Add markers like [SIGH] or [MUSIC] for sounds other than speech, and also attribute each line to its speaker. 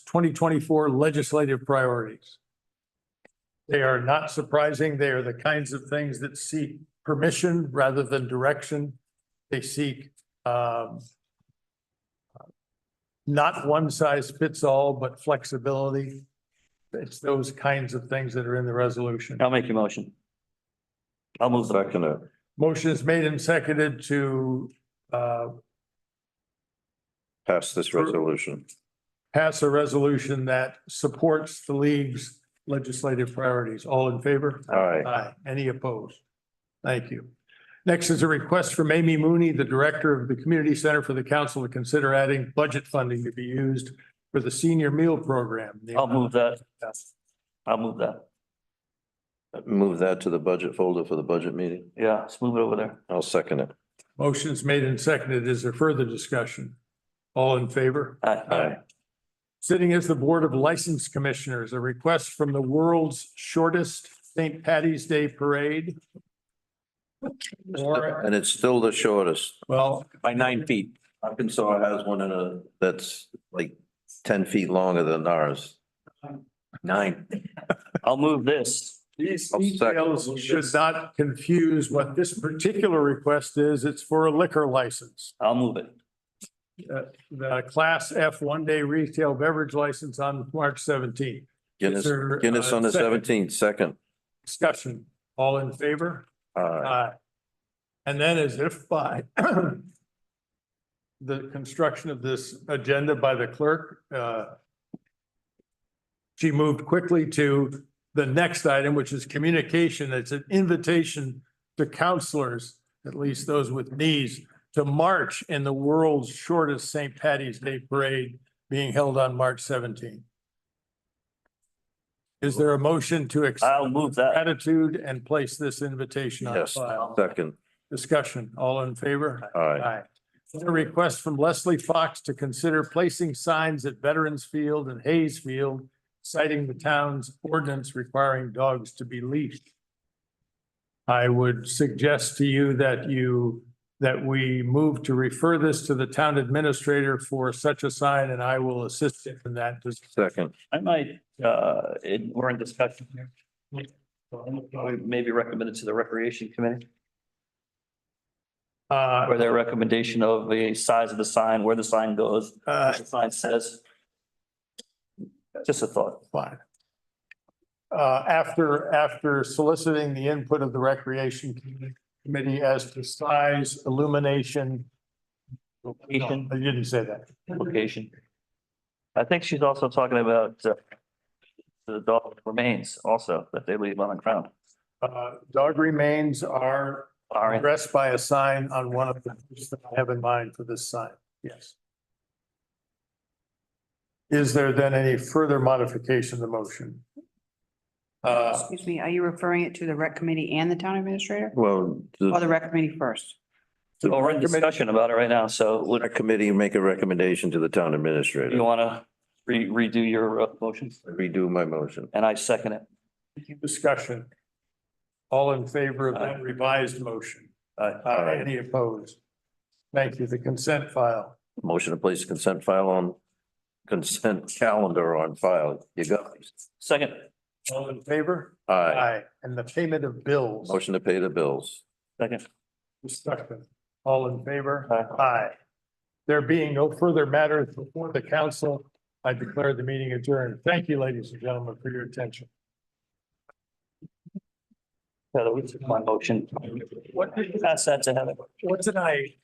Speaker 1: twenty twenty-four legislative priorities. They are not surprising. They are the kinds of things that seek permission rather than direction. They seek um not one size fits all, but flexibility. It's those kinds of things that are in the resolution.
Speaker 2: I'll make a motion. I'll move the
Speaker 3: Second it.
Speaker 1: Motion is made and seconded to uh
Speaker 3: Pass this resolution.
Speaker 1: pass a resolution that supports the league's legislative priorities. All in favor?
Speaker 3: All right.
Speaker 1: Aye. Any opposed? Thank you. Next is a request from Amy Mooney, the Director of the Community Center for the Council to consider adding budget funding to be used for the senior meal program.
Speaker 2: I'll move that. I'll move that.
Speaker 3: Move that to the budget folder for the budget meeting.
Speaker 2: Yeah, let's move it over there.
Speaker 3: I'll second it.
Speaker 1: Motion's made and seconded. Is there further discussion? All in favor?
Speaker 2: Aye.
Speaker 3: Aye.
Speaker 1: Sitting as the Board of License Commissioners, a request from the world's shortest St. Patty's Day Parade. Or,
Speaker 3: And it's still the shortest.
Speaker 1: well,
Speaker 2: By nine feet.
Speaker 3: Arkansas has one in a, that's like ten feet longer than ours. Nine.
Speaker 2: I'll move this.
Speaker 1: these
Speaker 3: I'll second.
Speaker 1: details should not confuse what this particular request is. It's for a liquor license.
Speaker 2: I'll move it.
Speaker 1: The Class F one-day retail beverage license on March seventeenth. uh,
Speaker 3: Guinness, Guinness on the seventeenth, second.
Speaker 1: Discussion. All in favor?
Speaker 3: Aye.
Speaker 1: Aye. Uh, And then as if by [CLEARS THROAT] the construction of this agenda by the clerk, uh, she moved quickly to the next item, which is communication. It's an invitation to counselors, at least those with knees, to march in the world's shortest St. Patty's Day Parade being held on March seventeenth. Is there a motion to accept
Speaker 2: I'll move that.
Speaker 1: gratitude and place this invitation on
Speaker 3: Yes,
Speaker 1: file.
Speaker 3: second.
Speaker 1: Discussion, all in favor?
Speaker 3: Aye.
Speaker 1: A request from Leslie Fox to consider placing signs at Veterans Field and Hayes Field citing the town's ordinance requiring dogs to be leashed. I would suggest to you that you, that we move to refer this to the town administrator for such a sign, and I will assist him in that. Does-
Speaker 3: Second.
Speaker 2: I might, uh, it- we're in discussion here. So I'm gonna probably Maybe recommend it to the recreation committee
Speaker 1: Uh,
Speaker 2: or their recommendation of the size of the sign, where the sign goes,
Speaker 1: uh,
Speaker 2: what the sign says. Just a thought.
Speaker 1: Fine. Uh, after, after soliciting the input of the recreation committee as to size, illumination. No,
Speaker 2: Location.
Speaker 1: I didn't say that.
Speaker 2: location. I think she's also talking about uh, the dog remains also that they leave on the ground.
Speaker 1: Uh, dog remains are
Speaker 2: All right,
Speaker 1: addressed by a sign on one of the, that I have in mind for this sign, yes. Is there then any further modification of the motion? Uh,
Speaker 4: Excuse me, are you referring it to the rec committee and the town administrator?
Speaker 3: Well,
Speaker 4: Or
Speaker 3: the
Speaker 4: the rec committee first?
Speaker 2: so we're in discussion about it right now, so
Speaker 3: our
Speaker 2: would
Speaker 3: committee make a recommendation to the town administrator.
Speaker 2: you want to redo your uh, motions?
Speaker 3: Redo my motion.
Speaker 2: And I second it.
Speaker 1: discussion. All in favor of
Speaker 2: Uh,
Speaker 1: that revised motion? Aye. Any opposed? Thank you. The consent file.
Speaker 3: Motion to place consent file on, consent [LAUGHS] calendar on file. You got it.
Speaker 2: Second,
Speaker 1: All in favor?
Speaker 3: Aye.
Speaker 1: And the payment of bills.
Speaker 3: Motion to pay the bills.
Speaker 2: second.
Speaker 1: Discussion. All in favor?
Speaker 2: Aye.
Speaker 1: There being no further matters before the council, I declare the meeting adjourned. Thank you, ladies and gentlemen, for your attention.
Speaker 2: Yeah, that was my motion.
Speaker 1: What did-
Speaker 2: Pass that to Heather.
Speaker 1: What did I?